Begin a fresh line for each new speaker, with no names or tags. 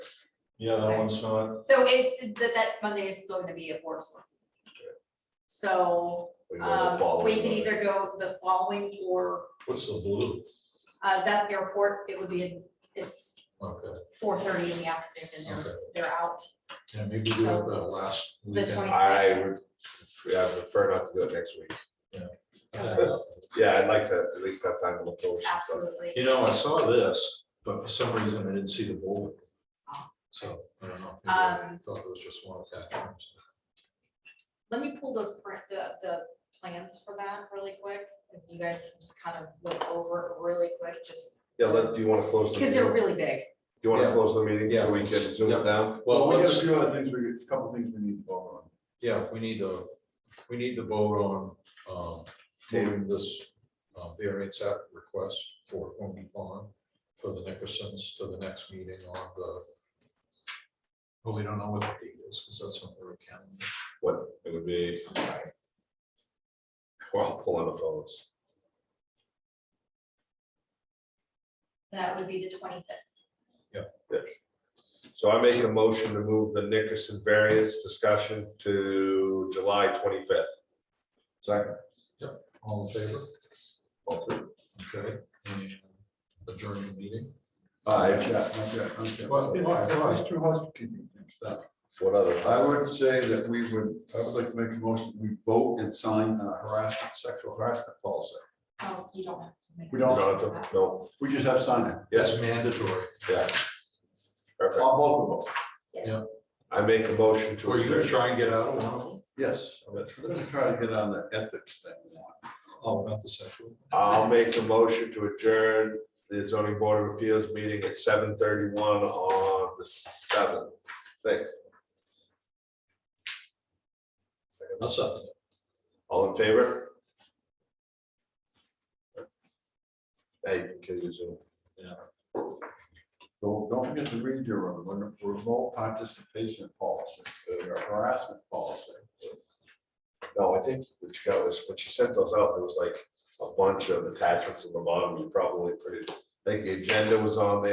Yeah, that
Okay.
one's not,
So it's, that, that Monday is still gonna be a board select. meeting. So,
We go the
um, we
following
can
Monday.
either go the following or,
what's the blue?
uh, that airport, it would be, it's
Okay,
four thirty in the afternoon and they're,
Okay.
they're out.
yeah, maybe do it the last
The
weekend.
twenty-
I would, yeah, I prefer not to do it next week.
Yeah.
Yeah, I'd like to at least have time to look over some stuff.
Absolutely.
You know, I saw this, but for some reason I didn't see the bowl. So, I don't know, maybe I
Um,
thought it was just one attachment.
Let me pull those print, the, the plans for that really quick. If you guys can just kind of look over it really quick, just,
Yeah, let, do you wanna close the
because
meeting?
they're
Do
really big.
you wanna
Yeah.
close the meeting
Yeah.
so we can zoom
Yeah.
it down?
Well,
Well, we got a
let's,
few other things, we, a couple things we need to vote
yeah, we need to, we need to vote on, um, moving this uh, variance act request for Hornby Pond for the Nickersons to the next meeting on the, well, we don't know what the date is, because that's not the calendar.
What, it would be. We're all pulling the phones.
That would be the twenty-fifth.
So I'm making a motion to move the Nickerson variance discussion to July twenty-fifth. Second.
All in favor?
All three.
Okay. and Adjourn the meeting.
on.
Aye.
Yeah, okay, okay.
Well,
It-
why, why?
It's two housekeeping things. that-
What other?
I would say that we would, I would like to make a motion, we vote and sign a harassment, sexual harassment policy.
Oh, you don't have to make.
We
You
don't-
don't have to- No,
We just have signed it,
yes,
That's mandatory.
yeah. Perfect.
on both of them,
I make a motion to.
Were you gonna
adjourn.
try and get out of one of them?
yes. I'm gonna try to get on the ethics thing.
Oh, not the sexual.
I'll make a motion to adjourn the zoning board of appeals meeting at seven thirty-one on the seventh. Thanks.
That's something.
All in favor? Hey, you can kill your Zoom.
So don't forget to read your remote- remote participation policy, your harassment policy.
No, I think what you got was, when she sent those out, there was like a bunch of attachments in the bottom. You probably pretty, I think the agenda was on there.